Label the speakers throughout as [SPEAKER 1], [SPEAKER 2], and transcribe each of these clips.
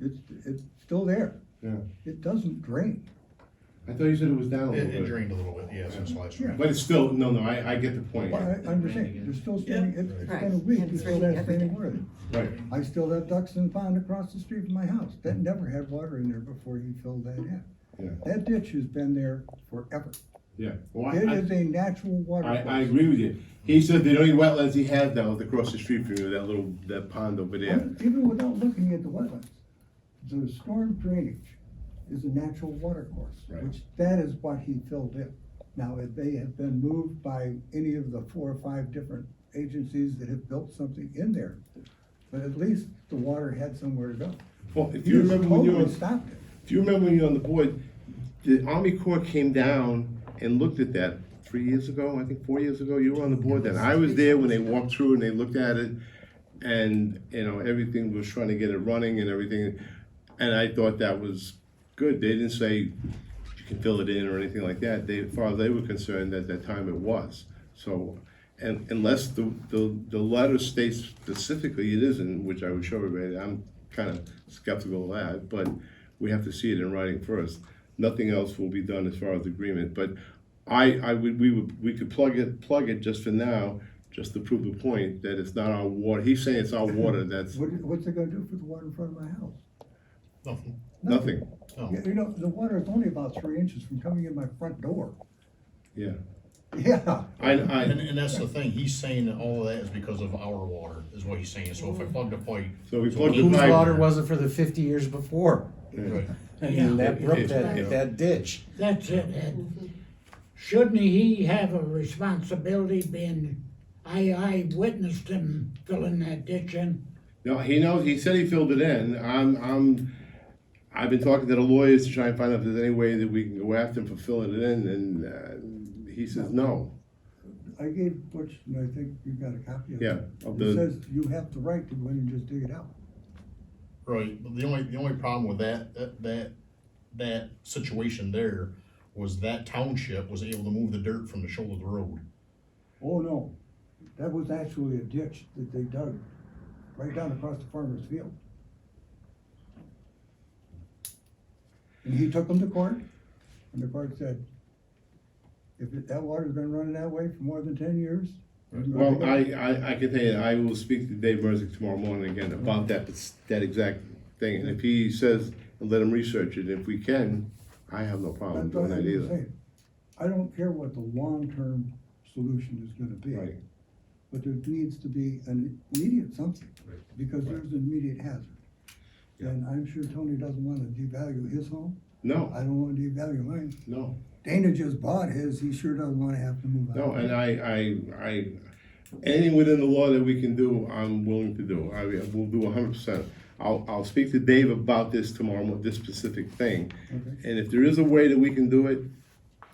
[SPEAKER 1] It's, it's still there.
[SPEAKER 2] Yeah,
[SPEAKER 1] It doesn't drain.
[SPEAKER 2] I thought you said it was down a
[SPEAKER 3] It, it
[SPEAKER 2] little bit.
[SPEAKER 3] drained a little bit, yeah, since last year.
[SPEAKER 1] Yeah.
[SPEAKER 2] But it's still, no, no, I, I get the point.
[SPEAKER 1] I, I understand, it's still standing, it's it's
[SPEAKER 4] Right.
[SPEAKER 1] been a week,
[SPEAKER 4] And
[SPEAKER 1] it's
[SPEAKER 4] it's
[SPEAKER 1] still
[SPEAKER 4] raining
[SPEAKER 1] there
[SPEAKER 4] every
[SPEAKER 1] standing
[SPEAKER 4] day.
[SPEAKER 1] water.
[SPEAKER 2] Right,
[SPEAKER 1] I still have ducks in the pond across the street from my house. That never had water in there before he filled that in.
[SPEAKER 2] Mm. yeah,
[SPEAKER 1] That ditch has been there forever.
[SPEAKER 2] yeah. Well,
[SPEAKER 1] It
[SPEAKER 2] I-
[SPEAKER 1] is a natural
[SPEAKER 2] I,
[SPEAKER 1] water.
[SPEAKER 2] I, I
[SPEAKER 1] course.
[SPEAKER 2] agree with you. He said the only wetlands he had now is across the street from you, that little, that pond over there.
[SPEAKER 1] Even without looking at the wetlands, the storm drainage is a natural water course,
[SPEAKER 2] Right.
[SPEAKER 1] which that is what he filled in. Now, if they have been moved by any of the four or five different agencies that have built something in there, but at least the water had somewhere to go.
[SPEAKER 2] Well, if you
[SPEAKER 1] You
[SPEAKER 2] remember when you were,
[SPEAKER 1] totally
[SPEAKER 2] if
[SPEAKER 1] stopped it.
[SPEAKER 2] you remember when you were on the board, the Army Corps came down and looked at that three years ago, I think four years ago, you were on the board then. I was there when they walked through and they looked at it and, you know, everything was trying to get it running and everything. And I thought that was good. They didn't say you can fill it in or anything like that. They, as far as they were concerned, at that time it was. So, and unless the, the, the letter states specifically it isn't, which I would show everybody, I'm kind of skeptical of that, but we have to see it in writing first. Nothing else will be done as far as agreement, but I, I would, we would, we could plug it, plug it just for now, just to prove the point that it's not our water. He's saying it's our water, that's
[SPEAKER 1] What, what's it gonna do for the water in front of my house?
[SPEAKER 3] Nothing,
[SPEAKER 2] nothing,
[SPEAKER 3] no.
[SPEAKER 1] You you know, the water is only about three inches from coming in my front door.
[SPEAKER 2] yeah.
[SPEAKER 1] Yeah.
[SPEAKER 2] I, I.
[SPEAKER 3] And, and that's the thing, he's saying that all of that is because of our water, is what he's saying, so if I plug the pipe.
[SPEAKER 2] So we plugged the
[SPEAKER 5] Whose
[SPEAKER 2] pipe.
[SPEAKER 5] water was it for the fifty years before?
[SPEAKER 3] Right.
[SPEAKER 5] I mean, that brook,
[SPEAKER 2] Yeah.
[SPEAKER 5] that, that ditch.
[SPEAKER 6] That's it, and shouldn't he have a responsibility being, I, I witnessed him filling that ditch in.
[SPEAKER 2] No, he knows. He said he filled it in. I'm, I'm, I've been talking to the lawyers to try and find out if there's any way that we can go after him for filling it in, and uh, he says no.
[SPEAKER 1] I gave Butch, and I think you got a copy of it.
[SPEAKER 2] Yeah, of
[SPEAKER 1] It
[SPEAKER 2] the-
[SPEAKER 1] Oh, says you have the right to go in and just dig it out.
[SPEAKER 3] Right, but the only, the only problem with that, that, that, that situation there was that township was able to move the dirt from the shoulder of the road.
[SPEAKER 1] Oh, no, that was actually a ditch that they dug right down across the farmer's field. And he took them to court, and the court said, if it- that water's been running that way for more than ten years. you're gonna
[SPEAKER 2] Well,
[SPEAKER 1] dig it
[SPEAKER 2] I,
[SPEAKER 1] out."
[SPEAKER 2] I, I can tell you, I will speak to Dave Merzick tomorrow morning again about that, that exact thing. And if he says, let him research it, if we can, I have no problem
[SPEAKER 1] That's what
[SPEAKER 2] doing
[SPEAKER 1] I'm
[SPEAKER 2] Um, that either.
[SPEAKER 1] saying. I don't care what the long-term solution is gonna
[SPEAKER 2] Right.
[SPEAKER 1] be, but there needs to be an immediate something,
[SPEAKER 2] Right.
[SPEAKER 1] because there's an immediate hazard.
[SPEAKER 2] Yeah.
[SPEAKER 1] And I'm sure Tony doesn't wanna devalue his home,
[SPEAKER 2] No,
[SPEAKER 1] I don't wanna devalue mine.
[SPEAKER 2] no.
[SPEAKER 1] Dana just bought his, he sure doesn't wanna have to move out.
[SPEAKER 2] No, and I, I, I, anything within the law that we can do, I'm willing to do. I will do hundred percent. I'll, I'll speak to Dave about this tomorrow, mo- this specific thing.
[SPEAKER 1] Okay.
[SPEAKER 2] And if there is a way that we can do it,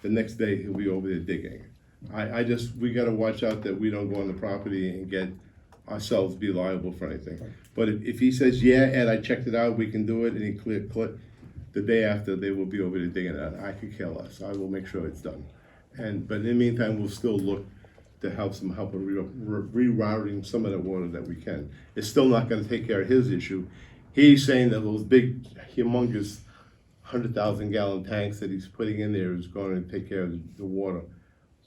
[SPEAKER 2] the next day he'll be over there digging. I, I just, we gotta watch out that we don't go on the property and get ourselves be liable for anything. But if, if he says, yeah, Ed, I checked it out, we can do it, and he clear, click, the day after, they will be over there digging it out. I could care less. I will make sure it's done. And, but in the meantime, we'll still look to help some help in re- rerouting some of the water that we can. It's still not gonna take care of his issue. He's saying that those big humongous hundred thousand gallon tanks that he's putting in there is gonna take care of the- the water.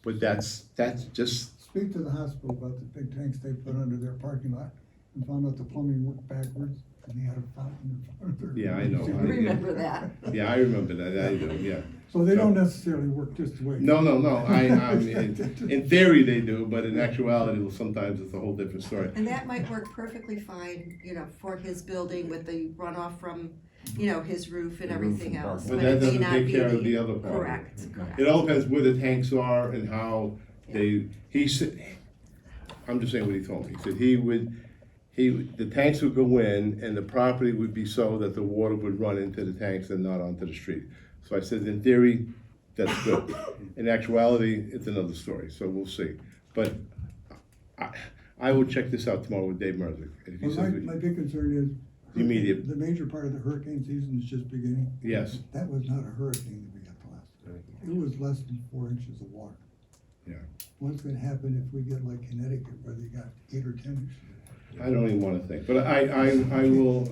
[SPEAKER 2] But that's, that's just,
[SPEAKER 1] Speak to the hospital about the big tanks they put under their parking lot, and found out the plumbing worked backwards, and they had a fountain in front of their.
[SPEAKER 2] Yeah, I know.
[SPEAKER 1] emergency
[SPEAKER 2] I
[SPEAKER 1] room.
[SPEAKER 4] Remember that.
[SPEAKER 2] yeah, I remember that, I do, yeah.
[SPEAKER 1] So they don't necessarily work just the way.
[SPEAKER 2] No, no, no, I, I mean, in theory they do, but in actuality, sometimes it's a whole different story.
[SPEAKER 4] And that might work perfectly fine, you know, for his building with the runoff from, you know, his roof and
[SPEAKER 5] The roof
[SPEAKER 4] everything
[SPEAKER 5] and
[SPEAKER 4] else.
[SPEAKER 5] parking.
[SPEAKER 2] But that
[SPEAKER 4] it may
[SPEAKER 2] doesn't
[SPEAKER 4] not
[SPEAKER 2] take
[SPEAKER 4] be
[SPEAKER 2] care of the other part.
[SPEAKER 4] Correct, correct.
[SPEAKER 2] It all depends where the tanks are and how they, he said, I'm just saying what he told me. He said he would, he, would- the tanks would go in and the property would be so that the water would run into the tanks and not onto the street. So I said, in theory, that's good. In actuality, it's another story, so we'll see. But I, I will check this out tomorrow with Dave Merzick. And if he
[SPEAKER 1] Well, my,
[SPEAKER 2] says,
[SPEAKER 1] my big concern is.
[SPEAKER 2] The immediate-
[SPEAKER 1] The major part of the hurricane season is just beginning.
[SPEAKER 2] yes,
[SPEAKER 1] That was not a hurricane that we got the last time. It was less than four inches of water.
[SPEAKER 2] Yeah.
[SPEAKER 1] What's gonna happen if we get like Connecticut where they got eight or ten inches?
[SPEAKER 2] I don't even wanna think, but I, I, I will,